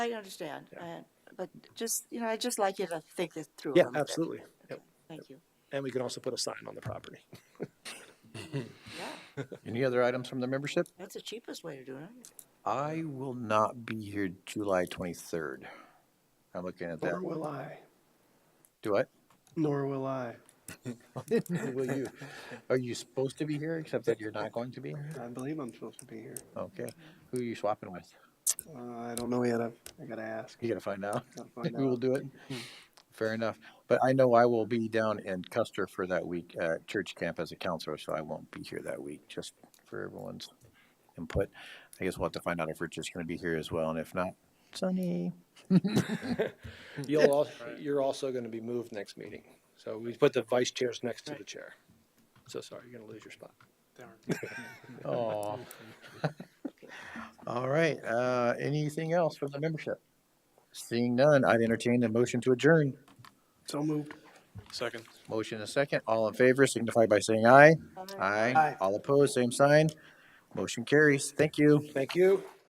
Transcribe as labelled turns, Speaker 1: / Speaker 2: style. Speaker 1: I understand, I- but just, you know, I'd just like you to think this through. a
Speaker 2: Yeah,
Speaker 1: little bit.
Speaker 2: absolutely. Yep.
Speaker 1: Thank you.
Speaker 2: And we can also put a sign on the property.
Speaker 1: Yeah,
Speaker 3: Any other items from the membership?
Speaker 1: that's the cheapest way to do it.
Speaker 3: I will not be here July 23rd. I'm looking at
Speaker 4: Nor
Speaker 3: that.
Speaker 4: will I.
Speaker 3: Do I?
Speaker 4: Nor will I.
Speaker 3: Will you? Are you supposed to be here, except that you're not going to be?
Speaker 4: I believe I'm supposed to be here.
Speaker 3: Okay. Who are you swapping with?
Speaker 4: Uh, I don't know yet. I've, I gotta ask.
Speaker 3: You gotta find out.
Speaker 4: Gotta find
Speaker 3: We will
Speaker 4: out. Hmm.
Speaker 3: do it. Fair enough. But I know I will be down in Custer for that week at church camp as a counselor, so I won't be here that week, just for everyone's input. I guess we'll have to find out if Rich is gonna be here as well, and if not, Sunny.
Speaker 5: You'll all, you're also going to be moved next meeting. So we put the vice chairs next to the
Speaker 1: Right.
Speaker 5: chair. So sorry, you're going to lose your spot.
Speaker 3: Oh. All right, uh, anything else from the membership? Seeing none, I'd entertain a motion to adjourn.
Speaker 4: So moved.
Speaker 6: Second.
Speaker 3: Motion and second, all in favor signify by saying aye.
Speaker 1: Aye.
Speaker 3: Aye.
Speaker 4: Aye.
Speaker 3: All opposed, same sign. Motion carries. Thank you.
Speaker 5: Thank you.